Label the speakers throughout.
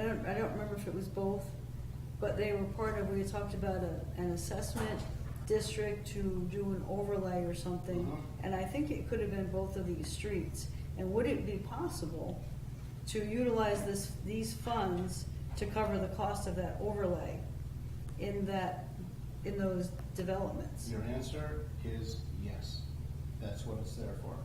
Speaker 1: I don't remember if it was both, but they were part of, we had talked about a, an assessment district to do an overlay or something.
Speaker 2: Uh-huh.
Speaker 1: And I think it could have been both of these streets. And would it be possible to utilize this, these funds to cover the cost of that overlay in that, in those developments?
Speaker 2: Your answer is yes. That's what it's there for.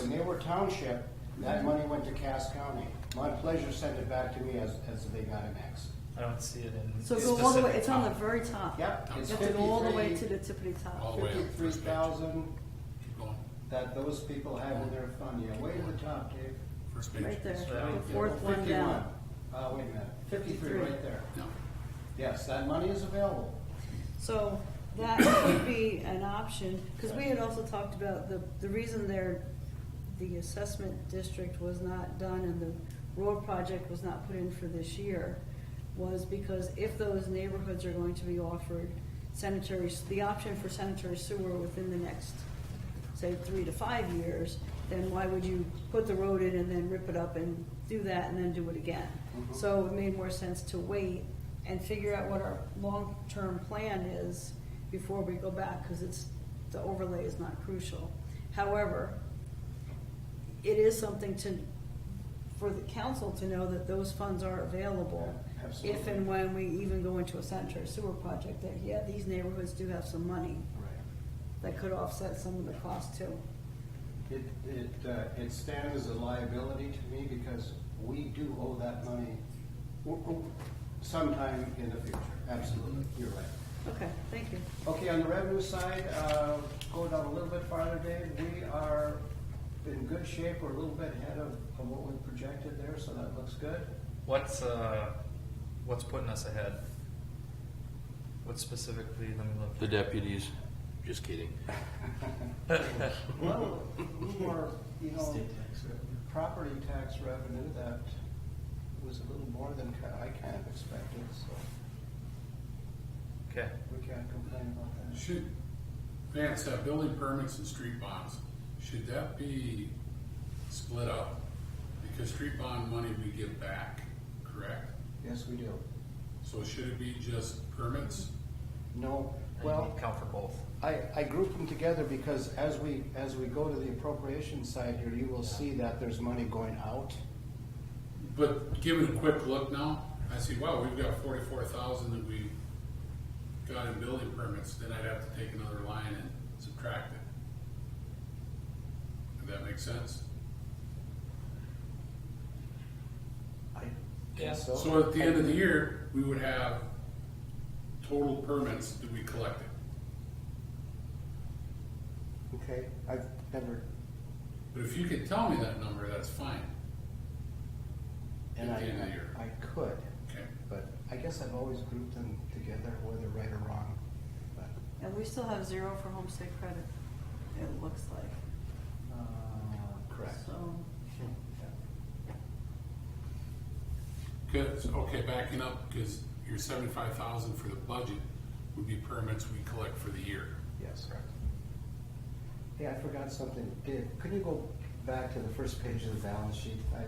Speaker 2: When they were township, that money went to Cass County. Mont Pleasure sent it back to me as, as they got an X.
Speaker 3: I don't see it in.
Speaker 1: So go all the way,
Speaker 3: specific
Speaker 1: it's on the
Speaker 3: time.
Speaker 1: very top.
Speaker 2: Yep,
Speaker 1: You
Speaker 2: it's
Speaker 1: have to go all the way to
Speaker 2: fifty-three,
Speaker 1: the tippity
Speaker 4: All
Speaker 1: top.
Speaker 4: the way up.
Speaker 2: fifty-three thousand
Speaker 4: Keep going,
Speaker 2: that those people have in their fund. Yeah, way to the top, Dave.
Speaker 4: first page.
Speaker 1: Right there,
Speaker 3: So-
Speaker 1: the fourth one down.
Speaker 2: 51. Uh, wait a minute, fifty-three right there.
Speaker 4: No,
Speaker 2: Yes, that money is available.
Speaker 1: So that could be an option, because we had also talked about the, the reason there, the assessment district was not done and the road project was not put in for this year was because if those neighborhoods are going to be offered sanitary, the option for sanitary sewer within the next, say, three to five years, then why would you put the road in and then rip it up and do that and then do it again? So it made more sense to wait and figure out what our long-term plan is before we go back, because it's, the overlay is not crucial. However, it is something to, for the council to know that those funds are available.
Speaker 2: Yeah, absolutely.
Speaker 1: If and when we even go into a sanitary sewer project, that, yeah, these neighborhoods do have some money
Speaker 2: Right.
Speaker 1: that could offset some of the cost too.
Speaker 2: It, it, uh, it stands as a liability to me because we do owe that money w- w- sometime in the future. Absolutely, you're right.
Speaker 1: Okay, thank you.
Speaker 2: Okay, on the revenue side, uh, go down a little bit farther, Dave, we are in good shape, we're a little bit ahead of, of what we projected there, so that looks good.
Speaker 3: What's, uh, what's putting us ahead? What specifically, let me look.
Speaker 5: The deputies, just kidding.
Speaker 2: Well, more, you know, property tax revenue that was a little more than ki- I kind of expected, so
Speaker 3: Okay,
Speaker 2: we can't complain about that.
Speaker 4: should, Vance, that building permits and street bonds, should that be split up? Because street bond money we give back, correct?
Speaker 2: Yes, we do.
Speaker 4: So should it be just permits?
Speaker 2: No,
Speaker 3: and
Speaker 2: well.
Speaker 3: you count for both.
Speaker 2: I, I grouped them together because as we, as we go to the appropriation side here, you will see that there's money going out.
Speaker 4: But giving a quick look now, I see, wow, we've got forty-four thousand that we got in building permits, then I'd have to take another line and subtract it. Does that make sense?
Speaker 2: I
Speaker 3: Yeah.
Speaker 2: guess so.
Speaker 4: So at the end of the year, we would have total permits that we collected.
Speaker 2: Okay, I've never,
Speaker 4: But if you could tell me that number, that's fine.
Speaker 2: and
Speaker 4: At the end of the year.
Speaker 2: I, I could,
Speaker 4: Okay.
Speaker 2: but I guess I've always grouped them together, whether right or wrong. But
Speaker 1: And we still have zero for homestead credit, it looks like.
Speaker 2: uh, Correct.
Speaker 1: So,
Speaker 4: Good, so, okay, backing up, because your seventy-five thousand for the budget would be permits we collect for the year.
Speaker 2: Yes. Hey, I forgot something. Dave, could you go back to the first page of the balance sheet? I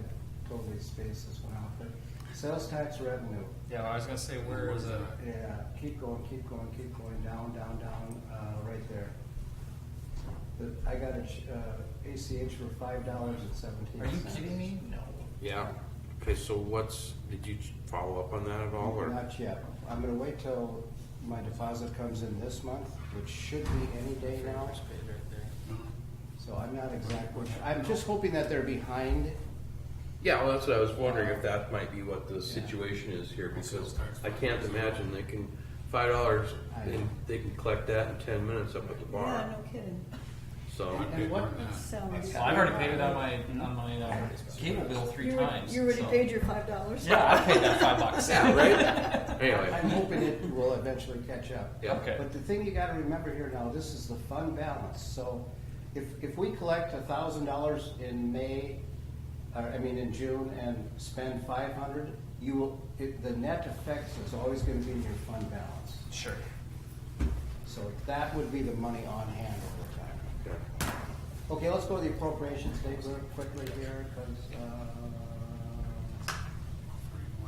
Speaker 2: totally spaced this one out, but sales tax revenue.
Speaker 3: Yeah, I was gonna say, where is it?
Speaker 2: Yeah, keep going, keep going, keep going, down, down, down, uh, right there. But I got a, ch- uh, ACH for five dollars and seventeen
Speaker 3: Are you
Speaker 2: cents.
Speaker 3: kidding me? No.
Speaker 5: Yeah. Okay, so what's, did you follow up on that at all or?
Speaker 2: Not yet. I'm gonna wait till my deposit comes in this month, which should be any day now. So I'm not exactly, I'm just hoping that they're behind.
Speaker 5: Yeah, well, that's what I was wondering if that might be what the situation is here because I can't imagine they can, five dollars, and they can collect that in ten minutes up at the
Speaker 1: yeah,
Speaker 5: bar,
Speaker 1: no kidding.
Speaker 5: so.
Speaker 4: I'd pay
Speaker 2: And what-
Speaker 4: more than that.
Speaker 1: Sounds.
Speaker 6: Well, I've already paid it on my, on my uh, cable bill three
Speaker 1: You already-
Speaker 6: times.
Speaker 1: You already
Speaker 6: so-
Speaker 1: paid your five dollars.
Speaker 6: Yeah, I paid that five bucks.
Speaker 5: Yeah, right?
Speaker 2: I'm
Speaker 5: Anyway,
Speaker 2: hoping it will eventually catch up.
Speaker 5: Yeah.
Speaker 6: Okay.
Speaker 2: But the thing you gotta remember here now, this is the fund balance, so if, if we collect a thousand dollars in May, or, I mean, in June, and spend five hundred, you will, it, the net effect is always gonna be in your fund balance.
Speaker 6: Sure.
Speaker 2: So that would be the money on hand over time.
Speaker 5: Yeah.
Speaker 2: Okay, let's go to the appropriations, Dave, real quickly here, because, um, uh,